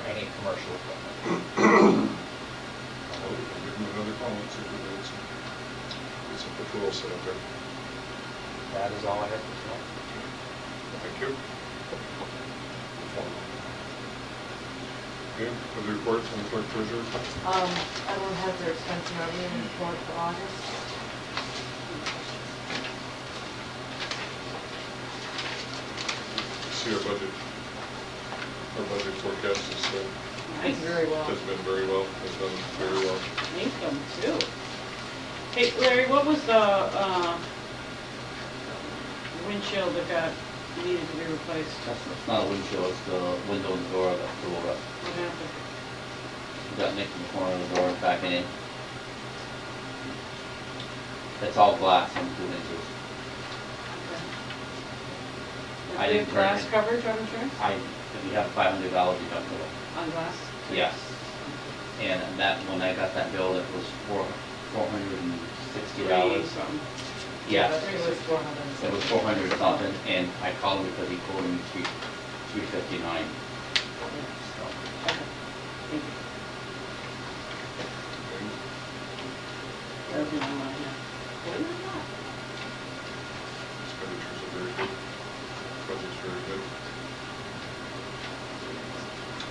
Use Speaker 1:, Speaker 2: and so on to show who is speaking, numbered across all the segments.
Speaker 1: commercial equipment. I hope we can give them another call and see if we can get some, get some patrols set up there.
Speaker 2: That is all I have to
Speaker 1: Thank you. Okay, other reports from the clerk treasurer?
Speaker 3: Um, I don't have their expense and revenue report for August.
Speaker 1: See our budget, our budget forecast has, uh,
Speaker 4: Nice.
Speaker 3: Very well.
Speaker 1: has been very well, has done very well.
Speaker 4: Make them too. Hey Larry, what was the, uh, windshield that got, needed to be replaced?
Speaker 5: That's that's not a windshield, it's the window and door that flew up.
Speaker 4: What happened?
Speaker 5: We got nicked in the corner of the door back in. It's all glass on two inches.
Speaker 4: Okay.
Speaker 5: I
Speaker 4: Did they have
Speaker 5: didn't turn
Speaker 4: glass
Speaker 5: it.
Speaker 4: coverage on insurance?
Speaker 5: I, if you have five hundred dollars deductible.
Speaker 4: On glass?
Speaker 5: Yes. And that, when I got that bill, it was four, four hundred and sixty
Speaker 4: Three
Speaker 5: dollars.
Speaker 4: something.
Speaker 5: Yeah,
Speaker 3: Three was four hundred and
Speaker 5: it was four hundred something, and I called him because he quoted me three, three fifty-nine. So,
Speaker 4: Okay. Thank you.
Speaker 1: Okay.
Speaker 4: That'll be on mine now.
Speaker 1: Expenditures are very good, budget's very good.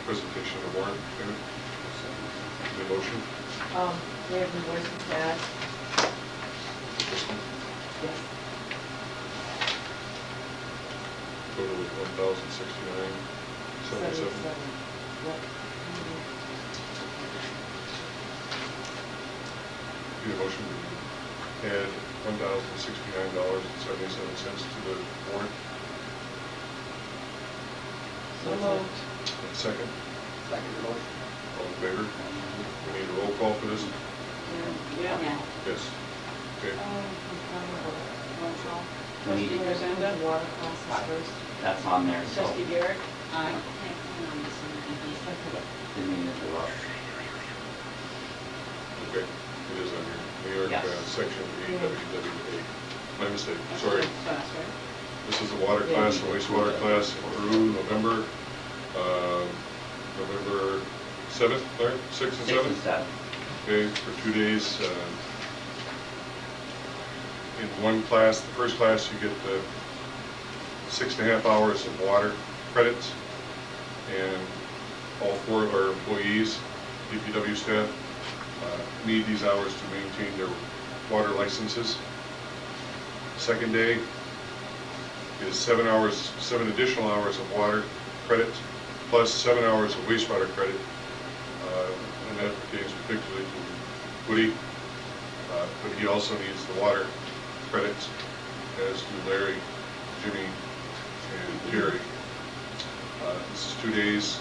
Speaker 1: Presentation of warrant, Karen, the motion,
Speaker 3: Um, we have invoices to add.
Speaker 1: this one,
Speaker 3: Yes.
Speaker 1: total of one thousand sixty-nine, seventy-seven.
Speaker 3: Seventy-seven. Yep.
Speaker 1: Need a motion to add one thousand sixty-nine dollars and seventy-seven cents to the warrant.
Speaker 3: So moved.
Speaker 1: And Second,
Speaker 2: Second motion.
Speaker 1: all in favor? We need a roll call for this?
Speaker 4: Yeah.
Speaker 1: Yes. Okay.
Speaker 3: Um, control.
Speaker 5: We need
Speaker 4: Trustee
Speaker 5: it.
Speaker 4: Rosenda?
Speaker 3: Water costs first.
Speaker 5: That's on there, so.
Speaker 4: Trustee Garrett? Aye.
Speaker 3: Okay.
Speaker 5: Didn't mean to interrupt.
Speaker 1: Okay, it is on here. New York,
Speaker 5: Yes.
Speaker 1: uh, section EWWA. My mistake, sorry.
Speaker 4: Glass, right?
Speaker 1: This is the water class, the wastewater class, Peru, November, uh, November 7th, Larry, 6th and 7th?
Speaker 5: Six and seven.
Speaker 1: okay, for two days. uh, In one class, the first class, you get the six and a half hours of water credits, and all four of our employees, DPW staff, uh, need these hours to maintain their water licenses. Second day is seven hours, seven additional hours of water credit, plus seven hours of wastewater credit, uh, and that pertains particularly to Woody, uh, but he also needs the water credits, as do Larry, Jimmy, and Jerry. Uh, This is two days,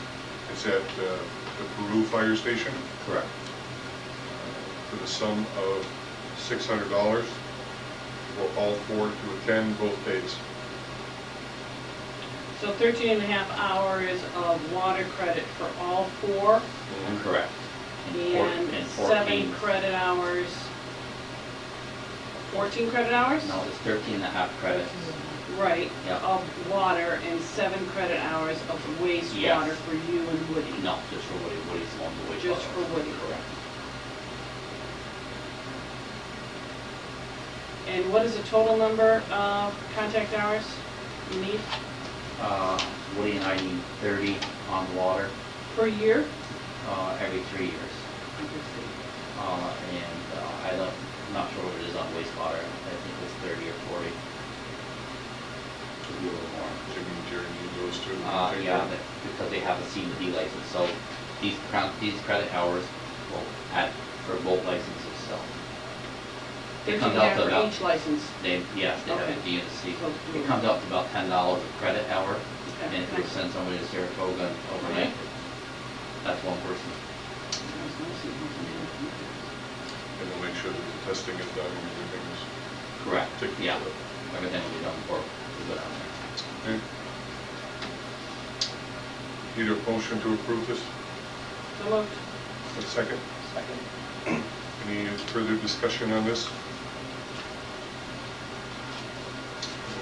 Speaker 1: it's at uh, the Peru Fire Station
Speaker 5: Correct.
Speaker 1: uh, for the sum of $600 for all four to attend both days.
Speaker 4: So 13 and a half hours of water credit for all four,
Speaker 5: Mm-hmm. Correct. four-
Speaker 4: and seven
Speaker 5: 14.
Speaker 4: credit hours. 14 credit hours?
Speaker 5: No, it's 13 and a half credits.
Speaker 4: Right,
Speaker 5: Yeah.
Speaker 4: of water and seven credit hours of wastewater
Speaker 5: Yes.
Speaker 4: for you and Woody.
Speaker 5: No, just for Woody, Woody's the one the wastewater.
Speaker 4: Just for Woody.
Speaker 5: Correct.
Speaker 4: And what is the total number of contact hours you need
Speaker 5: Uh, Woody and I need 30 on water
Speaker 4: per year?
Speaker 5: uh, every three years. Uh, And uh, I don't, not sure what it is on wastewater, I think it's 30 or 40. Could be a little more.
Speaker 1: Jimmy and Jerry need those two.
Speaker 5: Uh, yeah, that- because they have a C and D license, so these crown, these credit hours will add for both licenses, so. It
Speaker 4: Fifteen
Speaker 5: comes out to
Speaker 4: for
Speaker 5: about-
Speaker 4: each license.
Speaker 5: They, yes, they have
Speaker 4: Okay.
Speaker 5: a D and a C.
Speaker 4: So
Speaker 5: It comes out to about ten dollars a credit hour, and if you
Speaker 4: Okay.
Speaker 5: send somebody to Saratoga overnight,
Speaker 4: Okay.
Speaker 5: that's one person.
Speaker 1: And we'll make sure that the testing is done and everything is.
Speaker 5: Correct.
Speaker 1: Take the
Speaker 5: Yeah,
Speaker 1: credit.
Speaker 5: everything will be done for, we go down there.
Speaker 1: Okay. Need a motion to approve this?
Speaker 4: So moved.
Speaker 1: A second?
Speaker 2: Second.
Speaker 1: Any further discussion on this?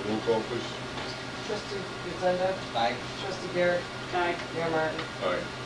Speaker 1: Roll call, please.
Speaker 3: Trustee Gisenda,
Speaker 2: Aye.
Speaker 3: trustee Garrett,
Speaker 4: Aye.
Speaker 3: Mayor Martin.
Speaker 1: Aye.